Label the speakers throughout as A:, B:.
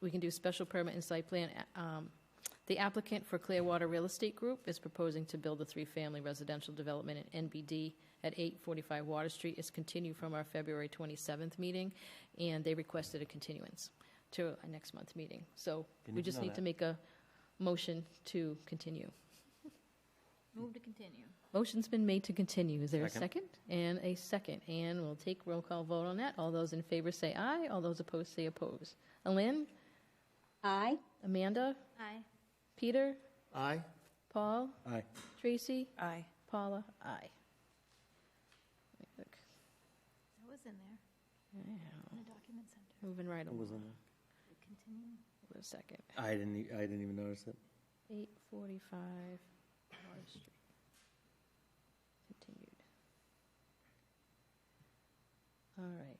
A: we can do special permit and site plan. um, The applicant for Clearwater Real Estate Group is proposing to build a three-family residential development in NBD at 845 Water Street. It's continued from our February 27th meeting, and they requested a continuance to our next month's meeting. So we
B: Didn't
A: just
B: know
A: need to
B: that.
A: make a motion to continue.
C: Move to continue.
A: Motion's been made to continue. Is there a second?
B: Second.
A: And a second. And we'll take roll call vote on that. All those in favor say aye. All those opposed say oppose. Alin?
D: Aye.
A: Amanda?
C: Aye.
A: Peter?
B: Aye.
A: Paul?
B: Aye.
A: Tracy?
E: Aye.
A: Paula? Aye. Look,
C: That was in there,
A: yeah,
C: in the document center.
A: Moving right
B: What was on
A: along.
B: that?
C: Continue.
A: Wait a second.
B: I didn't, e- I didn't even notice it.
A: 845 Water Street. Continued. All right.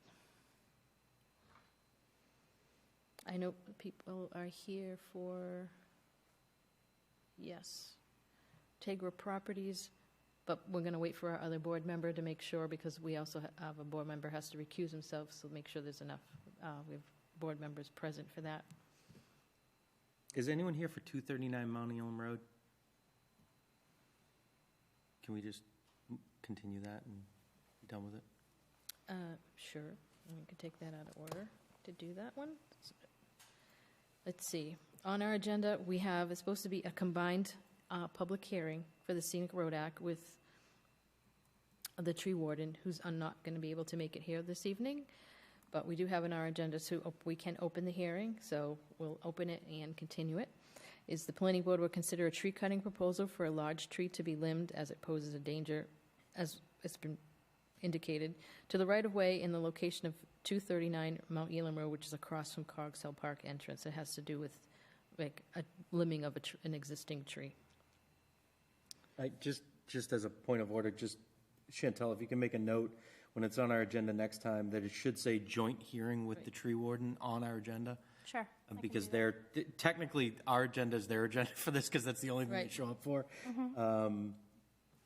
A: I know people are here for, yes, Tegra Properties, but we're going to wait for our other board member to make sure, because we also ha- have, a board member has to recuse himself, so make sure there's enough, uh, we have board members present for that.
B: Is anyone here for 239 Mounting Elm Road? Can we just m- continue that and be done with it?
A: Uh, Sure, we could take that out of order to do that one. Let's see, on our agenda, we have, it's supposed to be a combined uh, public hearing for the Scenic Road Act with the tree warden, who's uh, not going to be able to make it here this evening, but we do have on our agenda, so op- we can open the hearing, so we'll open it and continue it. Is the planning board will consider a tree cutting proposal for a large tree to be limbed as it poses a danger, as it's been indicated, to the right-of-way in the location of 239 Mount Elam Road, which is across from Cogs Hill Park entrance. It has to do with, like, a limbing of a tr- an existing tree.
B: I, just, just as a point of order, just Chantel, if you can make a note when it's on our agenda next time, that it should say joint hearing with the tree warden on our agenda.
C: Sure.
B: uh, Because they're, t- technically, our agenda is their agenda for this, because that's the only thing they
A: Right.
B: show up for. Um,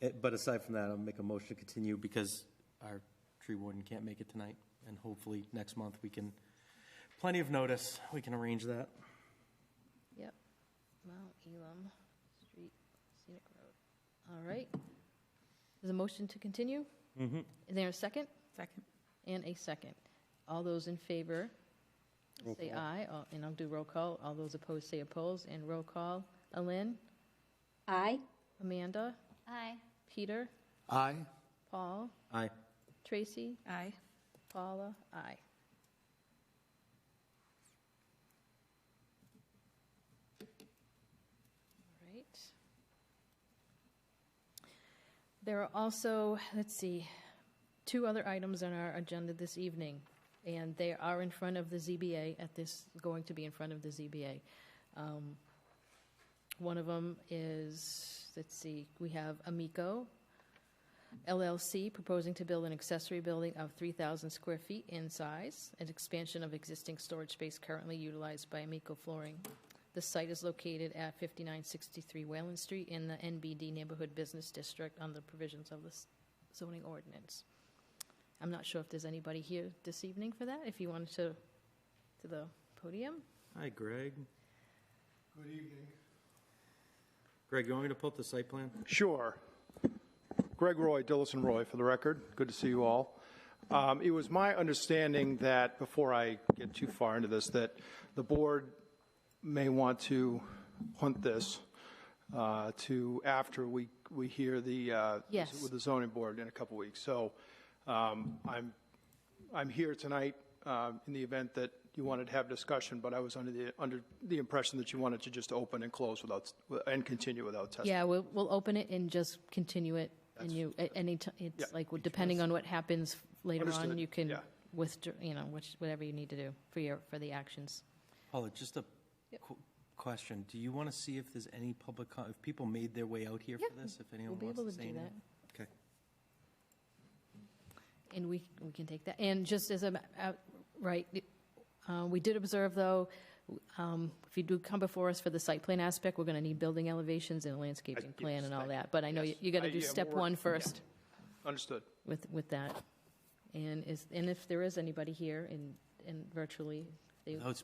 B: it- But aside from that, I'll make a motion to continue because our tree warden can't make it tonight. And hopefully, next month, we can, plenty of notice, we can arrange that.
A: Yep. Mount Elam Street Scenic Road. All right. There's a motion to continue? Is there a second?
E: Second.
A: And a second. All those in favor,
B: Roll
A: say
B: call.
A: aye, All- and I'll do roll call. All those opposed, say opposed, and roll call. Alin,
D: Aye.
A: Amanda,
C: Aye.
A: Peter,
B: Aye.
A: Paul,
B: Aye.
A: Tracy,
E: Aye.
A: Paula, aye. All right. There are also, let's see, two other items on our agenda this evening, and they are in front of the ZBA at this, going to be in front of the ZBA. Um, One of them is, let's see, we have Amico, LLC proposing to build an accessory building of 3,000 square feet in size, an expansion of existing storage space currently utilized by Amico Flooring. The site is located at 5963 Whalen Street in the NBD Neighborhood Business District on the provisions of the s- zoning ordinance. I'm not sure if there's anybody here this evening for that, if you wanted to, to the podium.
B: Hi, Greg.
F: Good evening.
B: Greg, you want me to pull up the site plan?
F: Sure. Greg Roy, Dillison Roy, for the record. Good to see you all. Um, It was my understanding that, before I get too far into this, that the board may want to punt this uh, to after we, we hear the, uh,
A: Yes.
F: with the zoning board in a couple weeks. So um, I'm, I'm here tonight um, in the event that you wanted to have discussion, but I was under the, under the impression that you wanted to just open and close without, and continue without testimony.
A: Yeah, we'll, we'll open it and just continue it, and you, at any time,
F: Yeah.
A: it's like, depending on what happens later on,
F: Understood.
A: you can
F: Yeah.
A: withdraw, you know, which, whatever you need to do for your, for the actions.
B: Paula, just a qu- question. Do you want to see if there's any public, co- if people made their way out here for
A: Yeah,
B: this? If
A: We'll
B: anyone
A: be
B: wants
A: able
B: to
A: to
B: say
A: do
B: anything?
A: that,
B: Okay.
A: and we, we can take that, and just as a, ma- out- right, uh, we did observe, though, um, if you do come before us for the site plan aspect, we're gonna need building elevations and landscaping plan
F: yes,
A: and all
F: thank you.
A: that, but I know you,
F: Yes.
A: you gotta
F: I-
A: do
F: yeah, we'll
A: step
F: work-
A: one
F: yeah.
A: first.
F: Understood.
A: with, with that. And is, and if there is anybody here in, in virtually, they,
B: Those